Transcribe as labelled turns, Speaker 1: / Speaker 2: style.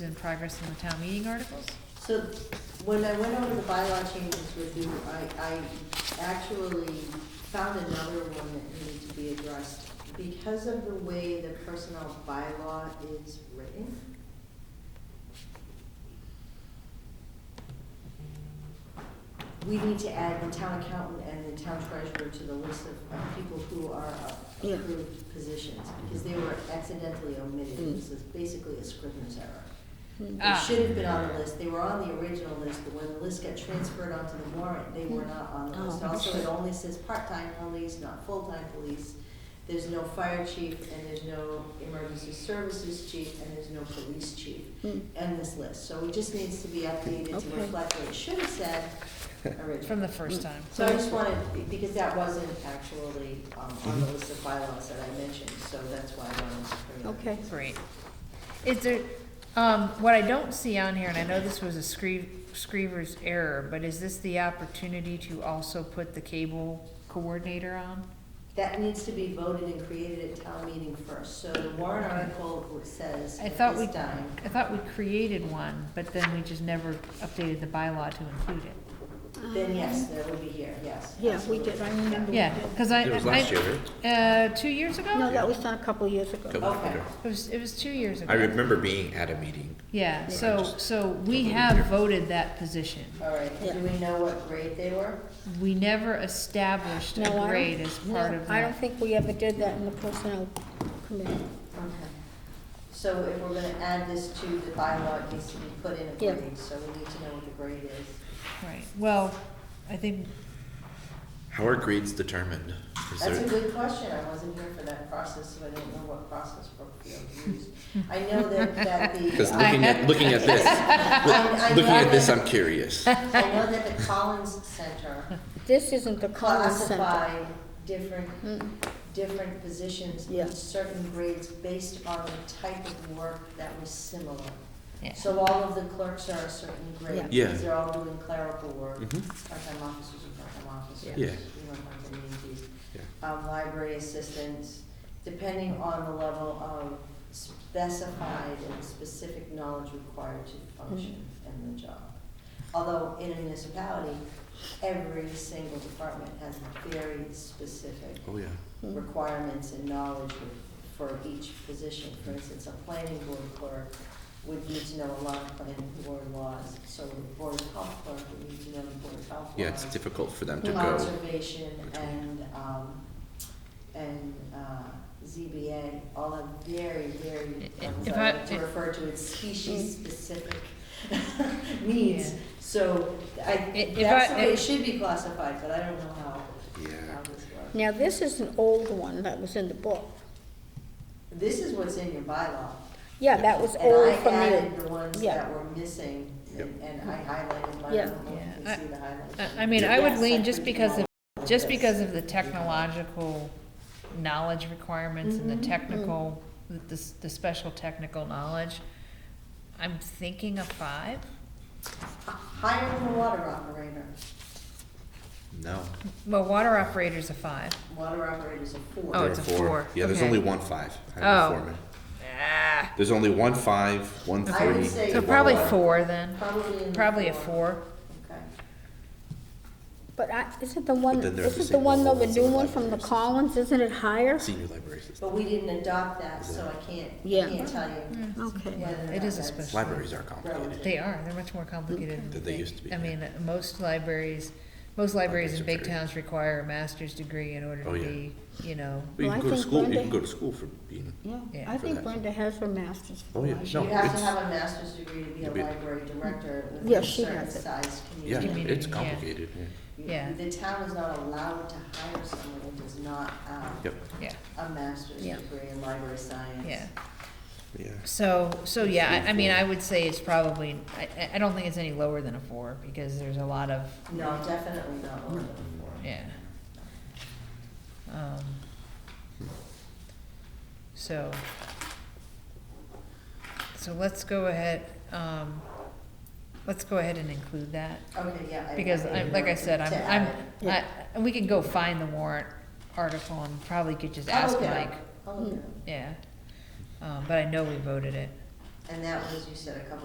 Speaker 1: in progress in the town meeting articles?
Speaker 2: So when I went over the bylaw changes with you, I, I actually found another one that needed to be addressed. Because of the way the personnel bylaw is written, we need to add the town accountant and the town treasurer to the list of of people who are
Speaker 3: Yeah.
Speaker 2: approved positions, because they were accidentally omitted.
Speaker 3: Mm.
Speaker 2: This is basically a scrivener's error. They
Speaker 1: Ah.
Speaker 2: should have been on the list, they were on the original list, but when the list got transferred onto the warrant, they were not on the
Speaker 3: Oh,
Speaker 2: list. Also,
Speaker 3: shit.
Speaker 2: it only says part-time police, not full-time police. There's no fire chief, and there's no emergency services chief, and there's no police chief
Speaker 3: Hmm.
Speaker 2: in this list. So it just needs to be updated to
Speaker 3: Okay.
Speaker 2: reflect what it should have said originally.
Speaker 1: From the first time.
Speaker 2: So I just wanted, because that wasn't actually um, on the list of bylaws that I mentioned, so that's why I wanted to bring it up.
Speaker 3: Okay.
Speaker 1: Great. Is there, um, what I don't see on here, and I know this was a scree- screever's error, but is this the opportunity to also put the cable coordinator on?
Speaker 2: That needs to be voted and created at town meeting first, so the warrant article says
Speaker 1: I
Speaker 2: at
Speaker 1: thought we,
Speaker 2: this time.
Speaker 1: I thought we created one, but then we just never updated the bylaw to include it.
Speaker 2: Then yes, that would be here, yes.
Speaker 3: Um, Yeah, we did, I remember. we
Speaker 1: Yeah,
Speaker 3: did.
Speaker 1: cause I.
Speaker 4: It was last
Speaker 1: I-
Speaker 4: year, right?
Speaker 1: Uh, two years ago?
Speaker 3: No, that was done a couple of years ago.
Speaker 4: Couple of
Speaker 2: Okay.
Speaker 4: years.
Speaker 1: It was, it was two years ago.
Speaker 4: I remember being at a meeting.
Speaker 1: Yeah, so,
Speaker 4: just-
Speaker 1: so we have voted that position.
Speaker 2: All right, do
Speaker 3: Yeah.
Speaker 2: we know what grade they were?
Speaker 1: We never established a
Speaker 3: No, I don't-
Speaker 1: grade as part
Speaker 3: no,
Speaker 1: of
Speaker 3: I don't
Speaker 1: that.
Speaker 3: think we ever did that in the personnel committee.
Speaker 2: Okay. So if we're gonna add this to the bylaw, it needs to be put in a
Speaker 3: Yeah.
Speaker 2: grade, so we need to know what the grade is.
Speaker 1: Right, well, I think,
Speaker 4: How are grades determined? Is
Speaker 2: That's a
Speaker 4: there-
Speaker 2: good question, I wasn't here for that process, so I didn't know what process Brookfield used. I know that, that the. uh,
Speaker 4: Because looking at, looking at this,
Speaker 2: I- I
Speaker 4: look- looking
Speaker 2: know
Speaker 4: at this,
Speaker 2: that-
Speaker 4: I'm curious.
Speaker 2: I know that the Collins Center
Speaker 3: This isn't the Collins Center.
Speaker 2: classify different,
Speaker 3: Mm.
Speaker 2: different positions
Speaker 3: Yeah.
Speaker 2: in certain grades based on the type of work that was similar.
Speaker 1: yeah.
Speaker 2: So all of the clerks are a certain grade,
Speaker 3: Yeah.
Speaker 4: Yeah.
Speaker 2: because they're all doing clerical work,
Speaker 4: Mhm.
Speaker 2: part-time officers are part-time officers.
Speaker 4: Yeah.
Speaker 2: You don't have the needies.
Speaker 4: Yeah.
Speaker 2: Um, library assistants, depending on the level of specified and specific knowledge required to function
Speaker 4: Mm-hmm.
Speaker 2: in the job. Although in a municipality, every single department has very specific
Speaker 4: Oh, yeah.
Speaker 3: Mm.
Speaker 2: requirements and knowledge for each position. For instance, a planning board clerk would need to know a lot of planning board laws, so the board of health clerk would need to know the board of health laws.
Speaker 4: Yeah, it's difficult for them to go.
Speaker 2: Conservation
Speaker 4: Between.
Speaker 2: and, um, and, uh, ZBA, all are very, very, I'm
Speaker 1: If
Speaker 2: sorry, I
Speaker 1: I-
Speaker 2: like to refer to it species-specific needs.
Speaker 1: Yeah.
Speaker 2: So I,
Speaker 1: If I-
Speaker 2: that's the way
Speaker 1: if-
Speaker 2: it should be classified, but I don't know how,
Speaker 4: Yeah.
Speaker 2: how this works.
Speaker 3: Now, this is an old one that was in the book.
Speaker 2: This is what's in your bylaw.
Speaker 3: Yeah, that was
Speaker 2: And I
Speaker 3: old from
Speaker 2: added
Speaker 3: the,
Speaker 2: the ones
Speaker 3: yeah.
Speaker 2: that were missing, and and I highlighted mine, I
Speaker 3: Yeah.
Speaker 2: don't know if you
Speaker 1: Yeah,
Speaker 2: can see the highlights.
Speaker 1: I- I mean, I would
Speaker 2: Yes,
Speaker 1: lean
Speaker 2: I
Speaker 1: just
Speaker 2: think
Speaker 1: because
Speaker 2: you
Speaker 1: of,
Speaker 2: know
Speaker 1: just
Speaker 2: this.
Speaker 1: because of the technological knowledge requirements and the technical, the, the- the special technical knowledge. I'm thinking a five.
Speaker 2: H- Higher than a water operator,
Speaker 4: No.
Speaker 1: Well, water operator's a five.
Speaker 2: water operators are four.
Speaker 1: Oh,
Speaker 4: There
Speaker 1: it's
Speaker 4: are
Speaker 1: a four.
Speaker 4: Yeah, there's
Speaker 1: Okay.
Speaker 4: only one five. I'm a
Speaker 1: Oh.
Speaker 4: foreman.
Speaker 1: Ah,
Speaker 4: There's only one five, one
Speaker 2: I would
Speaker 4: three.
Speaker 2: say-
Speaker 1: so
Speaker 4: and one
Speaker 1: probably
Speaker 4: one.
Speaker 1: four then,
Speaker 2: Probably in the
Speaker 1: probably a four.
Speaker 2: Okay.
Speaker 3: but I, isn't the one,
Speaker 4: then there's the
Speaker 3: isn't the one though, the
Speaker 4: same
Speaker 3: new
Speaker 4: old
Speaker 3: one
Speaker 4: ones
Speaker 3: from the
Speaker 4: that-
Speaker 3: Collins, isn't it higher?
Speaker 4: Senior library assistant.
Speaker 2: But we didn't adopt that, so I can't,
Speaker 3: Yeah.
Speaker 2: I can't tell you
Speaker 3: Okay.
Speaker 2: whether or
Speaker 1: Mm. It
Speaker 2: not
Speaker 1: is a
Speaker 2: that's-
Speaker 1: special-
Speaker 4: Libraries are complicated.
Speaker 1: They are, they're much more complicated.
Speaker 4: Than they used to be,
Speaker 1: I
Speaker 4: yeah.
Speaker 1: mean, most libraries, most libraries in
Speaker 4: Libraries are
Speaker 1: big
Speaker 4: very-
Speaker 1: towns require a master's degree in order to
Speaker 4: Oh, yeah.
Speaker 1: be, you know,
Speaker 4: But you
Speaker 3: Well, I
Speaker 4: can go to
Speaker 3: think
Speaker 4: school, you
Speaker 3: Brenda-
Speaker 4: can go to school for being,
Speaker 3: Yeah,
Speaker 1: Yeah.
Speaker 3: I
Speaker 4: For
Speaker 3: think
Speaker 4: that.
Speaker 3: Brenda has her master's.
Speaker 4: oh, yeah,
Speaker 2: You
Speaker 4: no,
Speaker 2: have to
Speaker 4: it's,
Speaker 2: have a master's degree to be a
Speaker 4: You'll be-
Speaker 2: library director within
Speaker 3: Yeah,
Speaker 2: a
Speaker 3: she
Speaker 2: certain
Speaker 3: has it.
Speaker 2: size
Speaker 4: yeah,
Speaker 2: community.
Speaker 1: community,
Speaker 4: it's
Speaker 1: yeah.
Speaker 4: complicated, yeah.
Speaker 2: You-
Speaker 1: Yeah.
Speaker 2: The town is not allowed to hire someone who does not have
Speaker 4: Yep,
Speaker 1: yeah,
Speaker 2: a master's
Speaker 1: Yeah.
Speaker 2: degree in library science.
Speaker 1: yeah.
Speaker 4: yeah.
Speaker 1: So, so yeah, I, I mean, I would say it's probably, I- I, I don't think it's any lower than a four, because there's a lot of,
Speaker 2: No, definitely not one of them four.
Speaker 1: yeah. Um, So, so let's go ahead, um, let's go ahead and include that.
Speaker 2: Okay, yeah. I-
Speaker 1: Because
Speaker 2: I
Speaker 1: I, like I said, I'm,
Speaker 2: to add
Speaker 1: I'm,
Speaker 2: it.
Speaker 1: I, and we can go find the warrant article and
Speaker 2: Oh,
Speaker 1: probably could just
Speaker 2: I'll
Speaker 1: ask
Speaker 2: look it up.
Speaker 1: Mike,
Speaker 2: I'll look it up.
Speaker 1: yeah. Um, but I know we voted it.
Speaker 2: And that was, you said, a couple